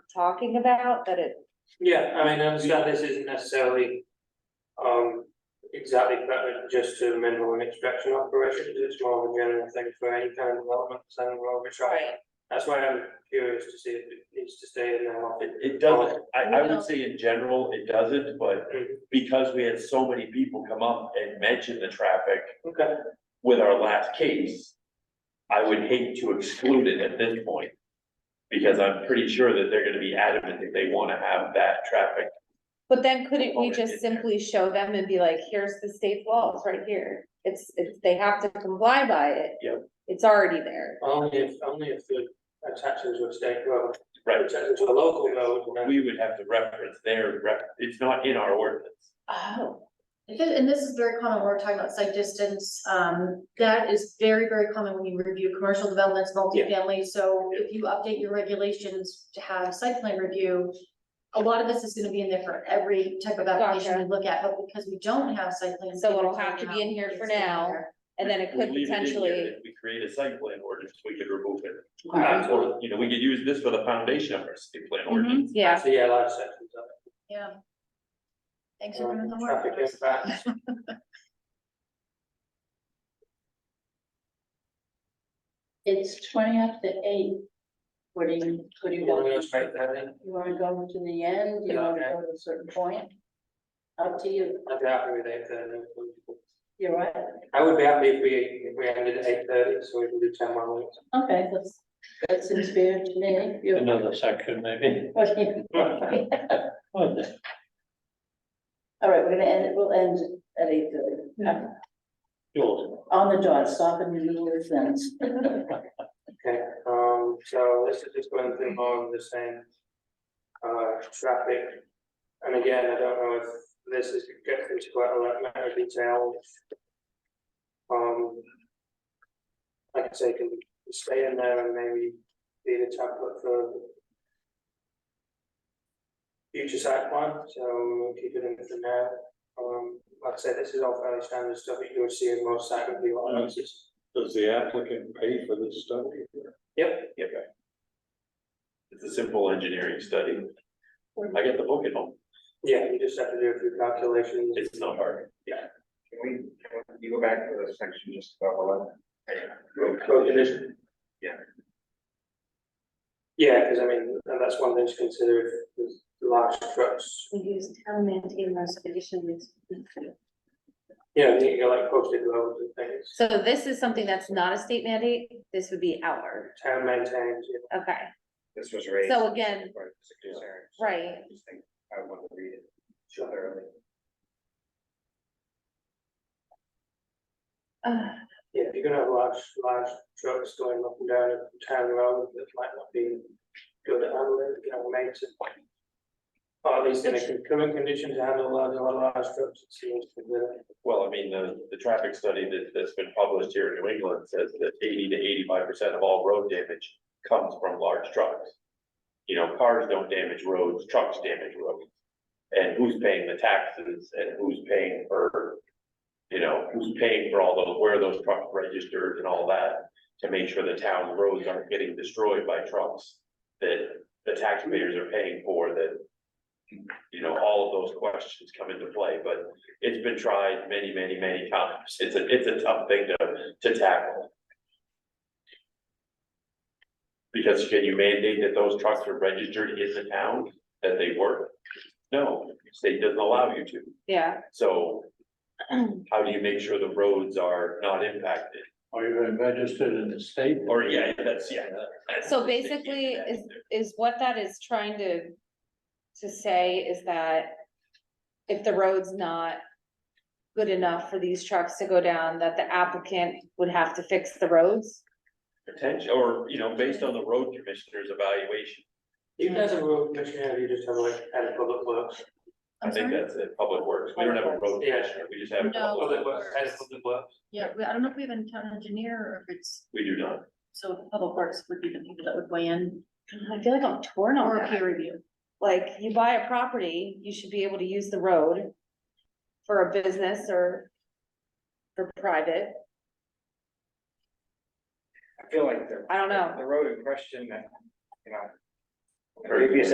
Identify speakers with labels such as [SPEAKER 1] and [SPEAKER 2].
[SPEAKER 1] talking about, that it,
[SPEAKER 2] Yeah, I mean, I understand this isn't necessarily. Um, exactly pertinent just to mineral and extraction operations, it's more of a general thing for any kind of development, and we're trying.
[SPEAKER 1] Right.
[SPEAKER 2] That's why I'm curious to see if it needs to stay in there, or if it.
[SPEAKER 3] It doesn't, I, I would say in general, it doesn't, but because we had so many people come up and mention the traffic
[SPEAKER 2] Okay,
[SPEAKER 3] with our last case. I would hate to exclude it at this point. Because I'm pretty sure that they're gonna be adamant that they wanna have that traffic.
[SPEAKER 1] but then couldn't we
[SPEAKER 3] Already
[SPEAKER 1] just
[SPEAKER 3] in there.
[SPEAKER 1] simply show them and be like, here's the state law, it's right here. It's, it's, they have to comply by it.
[SPEAKER 3] Yep.
[SPEAKER 1] It's already there.
[SPEAKER 2] only if, only if the attachments were state road,
[SPEAKER 3] Right,
[SPEAKER 2] attachments to a local road, and then
[SPEAKER 3] we would have to reference their ref, it's not in our ordinance.
[SPEAKER 1] Oh,
[SPEAKER 4] If it- And this is very common, we're talking about site distance, um, that is very, very common when you review commercial developments, multifamily, so if you update your regulations to have site plan review. A lot of this is gonna be in there for every type of application we
[SPEAKER 1] Gotcha.
[SPEAKER 4] look at, but because we don't have site plans.
[SPEAKER 1] So it'll have to be in here for now. and then it
[SPEAKER 3] We
[SPEAKER 1] could
[SPEAKER 3] leave in here,
[SPEAKER 1] potentially,
[SPEAKER 3] If we create a site plan ordinance, we could remove it.
[SPEAKER 2] Alright.
[SPEAKER 3] Or, you know, we could use this for the foundation of our site plan
[SPEAKER 1] Mm-hmm.
[SPEAKER 3] ordinance.
[SPEAKER 1] yeah,
[SPEAKER 2] actually, yeah, large sections of it.
[SPEAKER 4] Yeah. Thanks for doing the
[SPEAKER 2] um,
[SPEAKER 4] work.
[SPEAKER 2] Traffic impacts,
[SPEAKER 5] It's twenty after eight. What do you, what do you
[SPEAKER 2] you want to
[SPEAKER 5] want?
[SPEAKER 2] respect that in,
[SPEAKER 5] You wanna go to the end, you
[SPEAKER 2] Yeah,
[SPEAKER 5] wanna
[SPEAKER 2] okay.
[SPEAKER 5] go to a certain point? Up to you,
[SPEAKER 2] I'd be happy with eight thirty.
[SPEAKER 5] you're right,
[SPEAKER 2] I would be happy if we, if we ended at eight thirty, so we can do ten more minutes.
[SPEAKER 5] okay, that's, that's in spirit to me. You're-
[SPEAKER 6] Another section maybe.
[SPEAKER 5] what do you-
[SPEAKER 6] Oh, the-
[SPEAKER 5] All right, we're gonna end, it. we'll end at eight thirty,
[SPEAKER 6] yours.
[SPEAKER 5] on the dot, stop in the middle of the sentence.
[SPEAKER 2] Okay, um, so this is just going through more of the same. Uh, traffic. And again, I don't know if this is gets into quite a lot of detail. Um. Like I say, can stay in there and maybe be the template for. Future site plan, so we'll keep it in for now. Um, like I said, this is all fairly standard stuff that you would see in most site review
[SPEAKER 3] Mm.
[SPEAKER 2] analysis.
[SPEAKER 6] Does the applicant pay for this study?
[SPEAKER 2] Yep,
[SPEAKER 3] It's a simple engineering study. I get the book at home,
[SPEAKER 2] yeah, you just have to do a few calculations.
[SPEAKER 3] it's not hard.
[SPEAKER 7] Can we, can you go back to the section just above eleven?
[SPEAKER 2] Road condition.
[SPEAKER 7] Yeah.
[SPEAKER 2] Yeah, because I mean, and that's one thing to consider if there's large trucks,
[SPEAKER 8] Use town maintain those conditions.
[SPEAKER 2] you know, you need to go like posted roads and things,
[SPEAKER 1] so this is something that's not a state mandate, this would be our,
[SPEAKER 2] town maintains, you
[SPEAKER 1] okay,
[SPEAKER 7] This was raised.
[SPEAKER 1] So again,
[SPEAKER 7] Or it's a concern, so
[SPEAKER 1] right.
[SPEAKER 7] I just think I want to read it
[SPEAKER 2] Sure.
[SPEAKER 7] thoroughly.
[SPEAKER 1] Uh,
[SPEAKER 2] Yeah, if you're gonna have large, large trucks going up and down a town road, that might not be good at handling, you know, makes it. Or at least in a current condition to handle large, large trucks, it seems to be.
[SPEAKER 3] Well, I mean, the, the traffic study that, that's been published here in New England says that eighty to eighty-five percent of all road damage comes from large trucks. You know, cars don't damage roads, trucks damage roads. And who's paying the taxes and who's paying for, you know, who's paying for all those, where are those trucks registered and all that? To make sure the town roads aren't getting destroyed by trucks that the taxpayers are paying for that. You know, all of those questions come into play, but it's been tried many, many, many times. It's a, it's a tough thing to, to tackle. Because can you mandate that those trucks are registered in the town that they work? No, state doesn't allow you to.
[SPEAKER 1] yeah,
[SPEAKER 3] So how do you make sure the roads are not impacted?
[SPEAKER 6] Are you registered in the state?
[SPEAKER 3] Or, yeah, that's, yeah. that's-
[SPEAKER 1] So basically, is- is what that is trying to, to say is that if the road's not good enough for these trucks to go down, that the applicant would have to fix the roads?
[SPEAKER 3] Potential, or, you know, based on the road commissioner's evaluation,
[SPEAKER 2] Even as a road commissioner, you just have like, and public works.
[SPEAKER 3] I
[SPEAKER 4] I'm
[SPEAKER 3] think
[SPEAKER 4] sorry,
[SPEAKER 3] that's it, public works. We don't have a road
[SPEAKER 2] Yeah.
[SPEAKER 3] commissioner, we just have.
[SPEAKER 4] No.
[SPEAKER 3] public
[SPEAKER 2] Public
[SPEAKER 3] works.
[SPEAKER 2] works, head of public works.
[SPEAKER 4] yeah, we- I don't know if we have a town engineer or if it's,
[SPEAKER 3] We do not.
[SPEAKER 4] so public works would be the people that would weigh in,
[SPEAKER 1] I feel like I'm torn on
[SPEAKER 4] or a
[SPEAKER 1] that.
[SPEAKER 4] peer review.
[SPEAKER 1] Like, you buy a property, you should be able to use the road for a business or for private.
[SPEAKER 7] I feel like the.
[SPEAKER 1] I don't know.
[SPEAKER 7] The road in question that, you know. the
[SPEAKER 3] Very
[SPEAKER 7] Previous